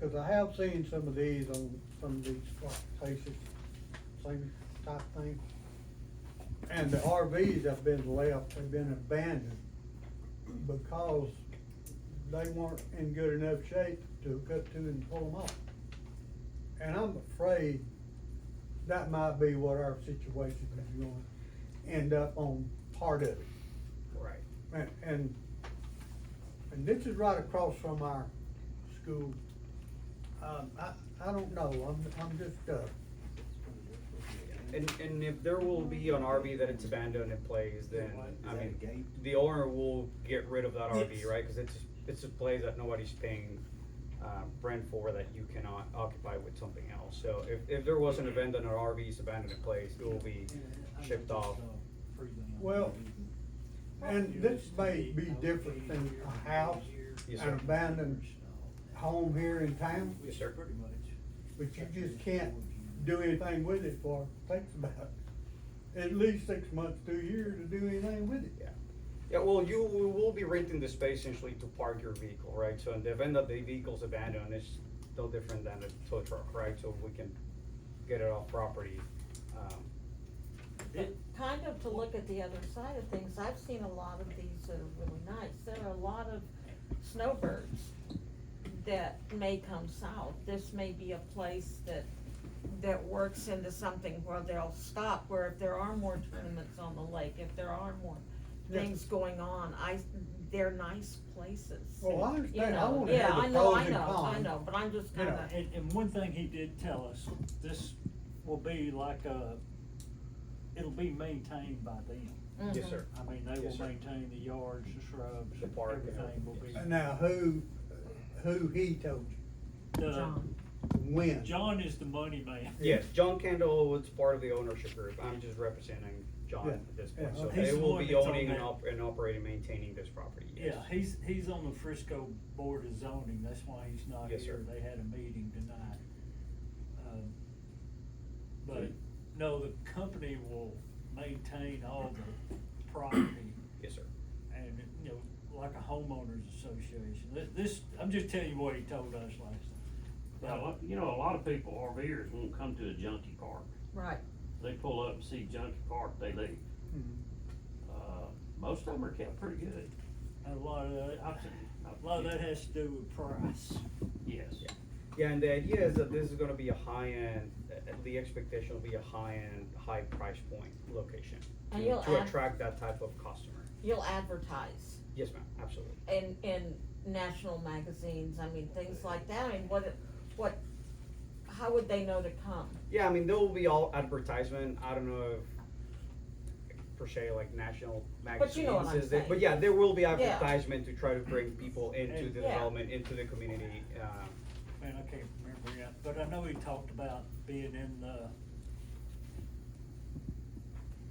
Cause I have seen some of these on some of these places, same type thing. And the RVs have been left, they've been abandoned because they weren't in good enough shape to cut to and pull them off. And I'm afraid that might be what our situation is going to end up on part of it. Right. And, and, and this is right across from our school. Um, I, I don't know, I'm, I'm just, uh, And, and if there will be an RV that it's abandoned and plays, then, I mean, the owner will get rid of that RV, Yes. right? Cause it's, it's a place that nobody's paying, uh, rent for that you cannot occupy with something else. So if, if there was an abandoned or RV's abandoned in place, it will be shipped off. Well, and this may be different than a house, Yes, an sir. abandoned home here in town, Yes, sir. Pretty much. but you just can't do anything with it for, takes about at least six months to a year to do anything with it. Yeah. Yeah, well, you we will be renting the space essentially to park your vehicle, right? So in the event that the vehicle's abandoned, it's no different than a tow truck, right? So we can get it off property. Um, But kind of to look at the other side of things, I've seen a lot of these that are really nice, there are a lot of snowbirds that may come south, this may be a place that, that works into something where they'll stop, where if there are more tournaments on the lake, if there are more Yeah. things going on, I, they're nice places. Well, I You understand, I know, wanna yeah, have I the know, pros I and know, I cons. know, but I'm just You know, kinda. And, and one thing he did tell us, this will be like a, it'll be maintained by them. Yes, Mhm. sir. I mean, they Yes, will sir. maintain the yards, the shrubs, The park, everything will be. yeah. Now, who, who he told The- John. you, when? John is the money man. Yes, John Kendall was part of the ownership group. I'm just representing John Yeah, at this yeah, point. So okay. they He's the will one be that's on owning and that. op- and operating, maintaining this property, yes. Yeah, he's, he's on the Frisco Board of Zoning, that's why he's not Yes, sir. here, they had a meeting tonight. Um, But, no, the company will maintain all the property Yes, sir. and, you know, like a homeowners association. This- This, I'm just telling you what he told us last time. Now, what- you know, a lot of people, RVers, won't come to a junkie park. Right, They pull up and see junkie park, they leave. Mhm. Uh, most of them are kept pretty good, A lot of, that- I think a lot of that has to do with price. yes. Yeah, and the idea is that this is gonna be a high-end, uh, the expectation will be a high-end, high price point location. And to- you'll To add- attract that type of customer. you'll advertise. Yes, ma'am, absolutely. in in national magazines. I mean, things like that. I mean, what what? How would they know to come? Yeah, I mean, there will be all advertisement, I don't know if per se like national magazines. you know what I'm is it- But saying. yeah, there will be Yeah. advertisement to try to bring people into And- the Yeah. development, into the community, um, Man, I can't remember yet, but I know he talked about being in the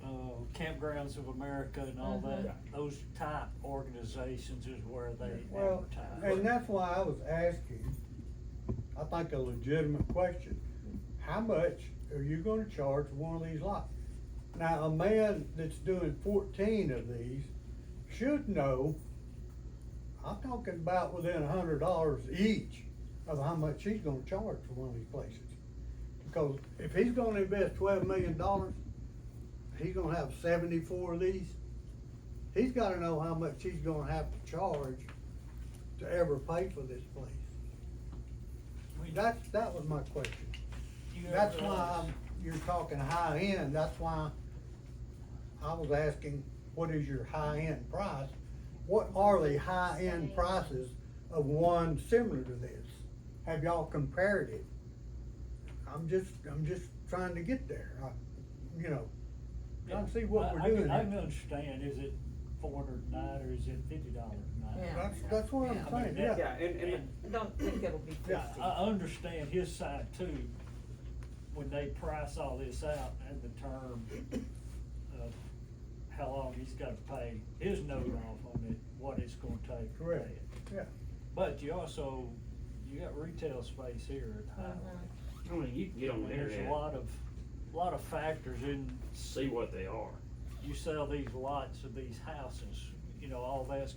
uh, Campgrounds of America and all Mm-hmm. that. Mhm. Those type organizations is where they Well, and advertise. that's why I was asking, I think a legitimate question, how much are you gonna charge for one of these lots? Now, a man that's doing fourteen of these should know, I'm talking about within a hundred dollars each of how much he's gonna charge for one of these places. Because if he's gonna invest twelve million dollars, he's gonna have seventy-four of these. He's gotta know how much he's gonna have to charge to ever pay for this place. I mean, that's, that was my question. You That's ever- uh, why I'm, you're talking high end, that's why I was asking, what is your high end price? What are the high end prices of one similar to this? Have y'all compared it? I'm just, I'm just trying to get there, I, you know, trying to see what I- we're I can- doing. I here. can understand, is it four hundred a night or is it fifty dollars a night? Yeah. That's, that's what I'm I mean, saying, that- yeah. Yeah, and- and- I don't think it'll be fifty. Yeah, I understand his side too, when they price all this out and the term of how long he's gotta pay his note off on it, what it's gonna take to pay Correct, it. yeah. But you also, you got retail space here at Highway. Mhm. I mean, you can get on the There's a lot internet, of, lot of factors in, see what they are. you sell these lots of these houses, you know, all that's